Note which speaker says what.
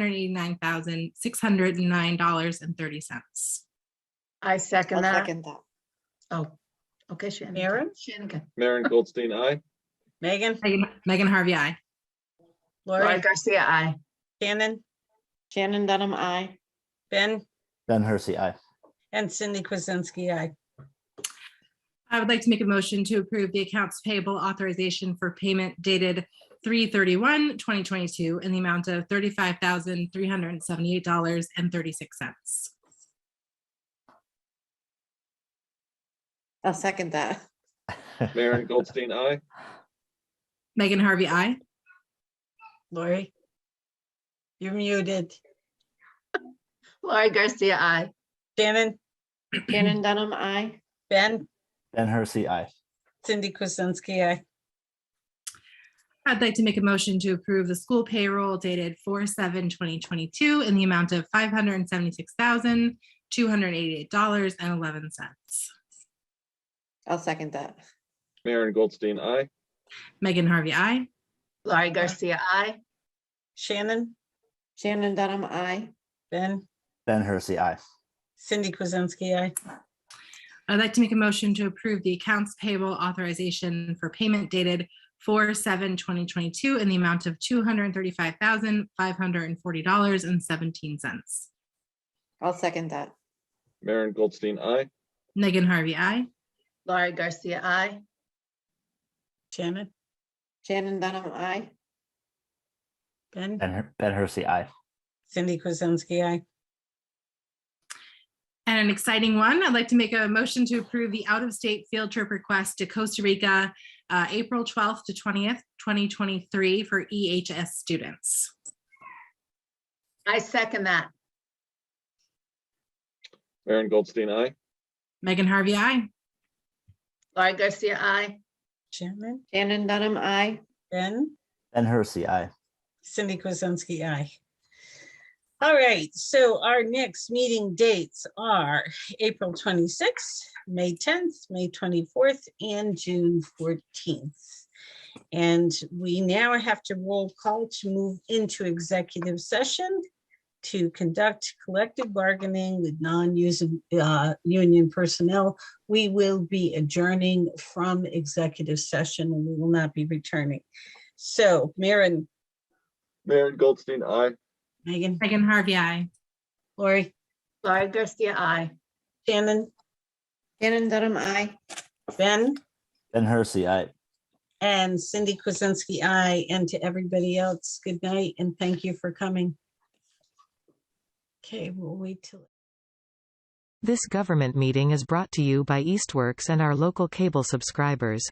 Speaker 1: hundred eighty-nine thousand, six hundred and nine dollars and thirty cents.
Speaker 2: I second
Speaker 3: I'll
Speaker 2: that.
Speaker 3: second that.
Speaker 2: Oh, okay, Shannon.
Speaker 4: Maren?
Speaker 2: Shannigan.
Speaker 5: Maren Goldstein, aye.
Speaker 4: Megan,
Speaker 1: Megan Harvey, I.
Speaker 2: Lori
Speaker 4: Lori,
Speaker 2: Garcia, I.
Speaker 4: Shannon,
Speaker 3: Shannon Dunham, I.
Speaker 4: Ben,
Speaker 6: Ben Hersey, aye.
Speaker 4: and Cindy Kuzensky, aye.
Speaker 1: I would like to make a motion to approve the accounts payable authorization for payment dated 2022 in the amount of thirty-five thousand, three hundred and seventy-eight dollars and thirty-six cents.
Speaker 3: I'll second that.
Speaker 5: Maren Goldstein, aye.
Speaker 1: Megan Harvey, I.
Speaker 4: Lori? You're muted.
Speaker 2: Lori Garcia, I.
Speaker 4: Shannon,
Speaker 3: Shannon Dunham, I.
Speaker 4: Ben,
Speaker 6: Ben Hersey, aye.
Speaker 4: Cindy Kuzensky, aye.
Speaker 1: I'd like to make a motion to approve the school payroll dated 4/7/2022 in the amount of five hundred and seventy-six thousand, two hundred and eighty-eight dollars and eleven cents.
Speaker 3: I'll second that.
Speaker 5: Maren Goldstein, aye.
Speaker 1: Megan Harvey, I.
Speaker 2: Lori Garcia, I.
Speaker 4: Shannon,
Speaker 3: Shannon Dunham, I.
Speaker 4: Ben,
Speaker 6: Ben Hersey, aye.
Speaker 4: Cindy Kuzensky, aye.
Speaker 1: I'd like to make a motion to approve the accounts payable authorization for payment dated 4/7/2022 in the amount of two hundred and thirty-five thousand, five hundred and forty dollars and seventeen cents.
Speaker 3: I'll second that.
Speaker 5: Maren Goldstein, aye.
Speaker 1: Megan Harvey, I.
Speaker 2: Lori Garcia, I.
Speaker 4: Shannon,
Speaker 3: Shannon Dunham, I.
Speaker 4: Ben,
Speaker 6: Ben Her- Ben Hersey, aye.
Speaker 4: Cindy Kuzensky, aye.
Speaker 1: And an exciting one, I'd like to make a motion to approve the out-of-state field trip request to Costa Rica, uh, April twelfth to twentieth, twenty twenty-three for EHS students.
Speaker 2: I second that.
Speaker 5: Maren Goldstein, aye.
Speaker 1: Megan Harvey, I.
Speaker 2: Lori Garcia, I.
Speaker 4: Shannon,
Speaker 3: Shannon Dunham, I.
Speaker 4: Ben,
Speaker 6: Ben Hersey, aye.
Speaker 4: Cindy Kuzensky, aye. All right, so our next meeting dates are April 26th, May 10th, May 24th, and June 14th. And we now have to roll call to move into executive session to conduct collective bargaining with non-using, uh, union personnel. We will be adjourning from executive session and we will not be returning. So Maren,
Speaker 5: Maren Goldstein, aye.
Speaker 4: Megan,
Speaker 1: Megan Harvey, I.
Speaker 4: Lori,
Speaker 2: Lori Garcia, I.
Speaker 4: Shannon,
Speaker 3: Shannon Dunham, I.
Speaker 4: Ben,
Speaker 6: Ben Hersey, aye.
Speaker 4: and Cindy Kuzensky, I, and to everybody else, good night and thank you for coming. Okay, we'll wait till.
Speaker 7: This government meeting is brought to you by Eastworks and our local cable subscribers.